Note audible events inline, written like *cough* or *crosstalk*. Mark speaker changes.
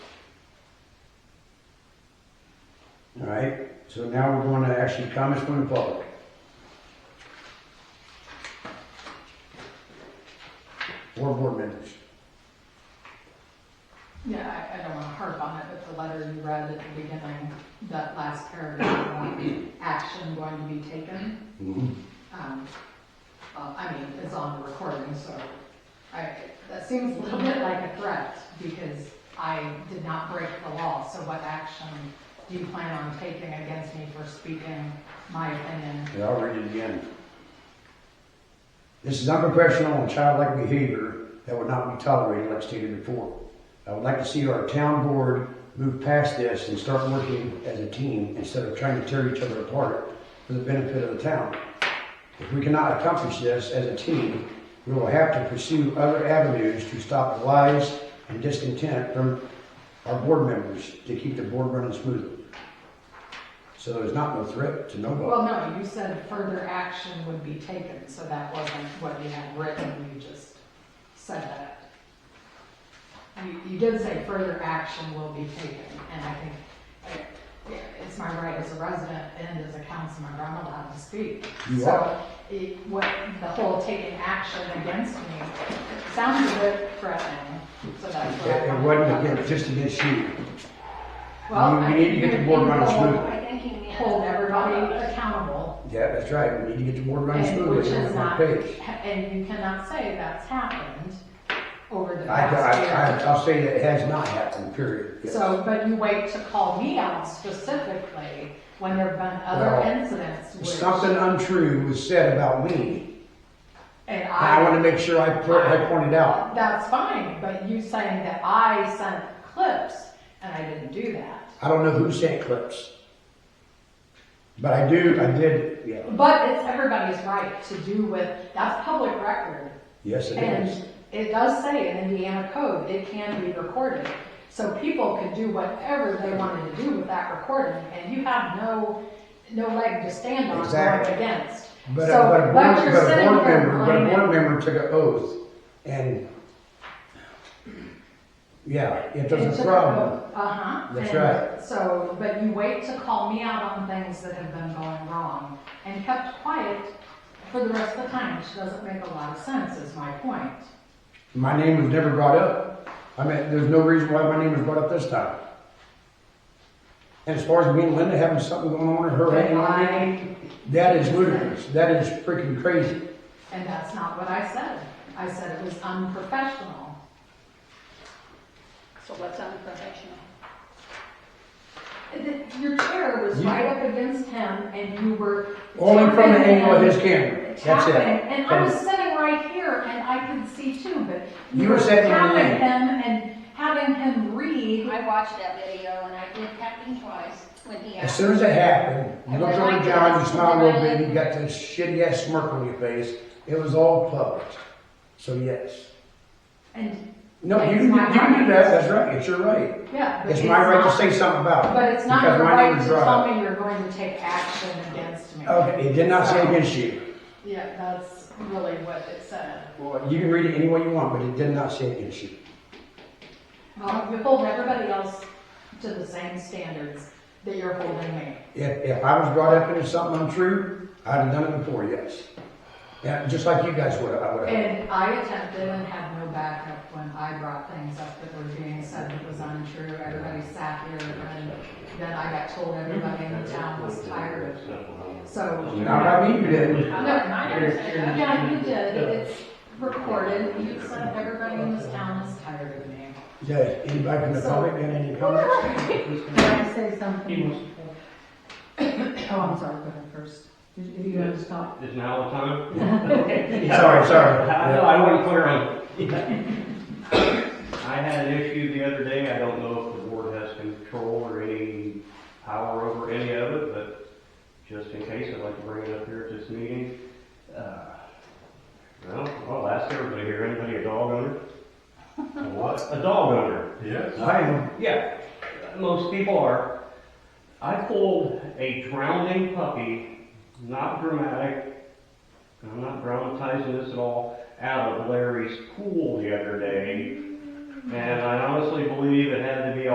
Speaker 1: All right, so now we're going to actually comments from the public. Four board members.
Speaker 2: Yeah, I, I don't wanna harp on it, but the letter you read at the beginning, that last paragraph about action going to be taken, um, well, I mean, it's on the recording, so I, that seems a little bit like a threat, because I did not break the law, so what action do you plan on taking against me for speaking my opinion?
Speaker 1: Yeah, I'll read it again. This is unprofessional and childlike behavior that would not be tolerated, like stated before. I would like to see our town board move past this and start working as a team instead of trying to tear each other apart for the benefit of the town. If we cannot accomplish this as a team, we will have to pursue other avenues to stop the lies and discontent from our board members to keep the board running smoothly. So there's not no threat to nobody.
Speaker 2: Well, no, you said further action would be taken, so that wasn't what you had written, you just said that. You, you did say further action will be taken, and I think, I- yeah, it's my right as a resident and as a councilmember, I'm allowed to speak.
Speaker 1: You
Speaker 2: So, it, what, the whole taking action against me sounds a bit threatening, so that's
Speaker 1: It
Speaker 2: what I.
Speaker 1: it wasn't against, just against you.
Speaker 2: Well,
Speaker 1: We- we
Speaker 2: I
Speaker 1: need to get the
Speaker 2: think
Speaker 1: board running
Speaker 2: people
Speaker 1: smoothly.
Speaker 3: I think you mean.
Speaker 2: Hold everybody accountable.
Speaker 1: Yeah, that's right, we need to get the board running
Speaker 2: And
Speaker 1: smoothly,
Speaker 2: which
Speaker 1: we're
Speaker 2: is
Speaker 1: on that
Speaker 2: not,
Speaker 1: page.
Speaker 2: and you cannot say that's happened over the
Speaker 1: I, I, I,
Speaker 2: past
Speaker 1: I'll say that it has not happened, period.
Speaker 2: year.
Speaker 1: Yes.
Speaker 2: So, but you wait to call me out specifically when there've been other
Speaker 1: Well,
Speaker 2: incidents
Speaker 1: If
Speaker 2: which,
Speaker 1: Something untrue was said about me,
Speaker 2: and
Speaker 1: and I wanna
Speaker 2: I,
Speaker 1: make sure I, put- I pointed out.
Speaker 2: that's fine, but you saying that I sent clips and I didn't do that.
Speaker 1: I don't know who sent clips. But I do, I did, yeah,
Speaker 2: But it's everybody's right to do with, that's public record.
Speaker 1: yes, it is.
Speaker 2: And it does say in Indiana code, it can be recorded. So people can do whatever they wanted to do with that recording, and you have no, no leg to stand on
Speaker 1: Exactly.
Speaker 2: going against.
Speaker 1: But a,
Speaker 2: so-
Speaker 1: but a board,
Speaker 2: but you're
Speaker 1: but a
Speaker 2: sitting
Speaker 1: board
Speaker 2: here
Speaker 1: member, but a board
Speaker 2: blaming-
Speaker 1: member took an oath, and, yeah, it was a problem.
Speaker 2: Uh-huh.
Speaker 1: That's
Speaker 2: And
Speaker 1: right.
Speaker 2: So, but you wait to call me out on things that have been going wrong and kept quiet for the rest of the time, which doesn't make a lot of sense, is my point.
Speaker 1: My name was never brought up. I mean, there's no reason why my name was brought up this time. And as far as me and Linda having something going on in her
Speaker 2: But
Speaker 1: hand on me,
Speaker 2: I
Speaker 1: that is ludicrous. That is freaking crazy.
Speaker 2: And that's not what I said. I said it was unprofessional.
Speaker 3: So what's unprofessional?
Speaker 2: That Your chair was
Speaker 1: You-
Speaker 2: right up against him and you were.
Speaker 1: Only from the
Speaker 2: tapping
Speaker 1: angle of
Speaker 2: him,
Speaker 1: his camera. That's
Speaker 2: tapping,
Speaker 1: it.
Speaker 2: And I was sitting right here and I could see too, but.
Speaker 1: You were sitting in the
Speaker 2: Tapping
Speaker 1: lane.
Speaker 2: him and having him read.
Speaker 3: I watched that video and I did tap him twice when he
Speaker 1: As
Speaker 3: asked.
Speaker 1: soon as it happened, you looked over at John, you smiled a little bit, you got this shitty ass smirk on your face. It was all public. So yes.
Speaker 2: And,
Speaker 1: No, you, you do that. That's right. It's your right.
Speaker 2: yeah. but
Speaker 1: It's my right to
Speaker 2: not-
Speaker 1: say something about it.
Speaker 2: But it's not
Speaker 1: because
Speaker 2: your
Speaker 1: my name
Speaker 2: right
Speaker 1: was
Speaker 2: to
Speaker 1: brought up.
Speaker 2: tell me you're going to take action against me.
Speaker 1: Okay, it did not say against you.
Speaker 2: Yeah, that's really what it said.
Speaker 1: Well, you can read it any way you want, but it did not say against you.
Speaker 2: Well, you hold everybody else to the same standards that you're holding me.
Speaker 1: If, if I was brought up into something untrue, I'd have done it before, yes. Yeah, just like you guys would have, I would have.
Speaker 2: And I attempted and had no backup when I brought things up that were being said that was untrue. Everybody sat here and then I got told everybody in the town was tired of me. So,
Speaker 1: Not by me, you
Speaker 2: no,
Speaker 1: didn't.
Speaker 2: I understand. Yeah, you did. It's recorded. You said everybody in this town is tired of me.
Speaker 1: Yeah, anybody from the public, got any comments?
Speaker 4: Can I say something? Oh, I'm sorry, go ahead first. If you want to stop.
Speaker 5: Is now the time? *laughs*
Speaker 1: Sorry, sorry.
Speaker 5: I know, I don't want to clear on. *laughs* I had an issue the other day, I don't know if the board has control or any power over any of it, but just in case, I'd like to bring it up here at this meeting. Uh, Well, I'll ask everybody here, anybody a dog owner?
Speaker 6: A What?
Speaker 5: A dog owner.
Speaker 6: Yes.
Speaker 1: I am.
Speaker 5: Yeah, most people are. I pulled a drowning puppy, not dramatic, I'm not dramatizing this at all, out of Larry's pool the other day. And I honestly believe it had to be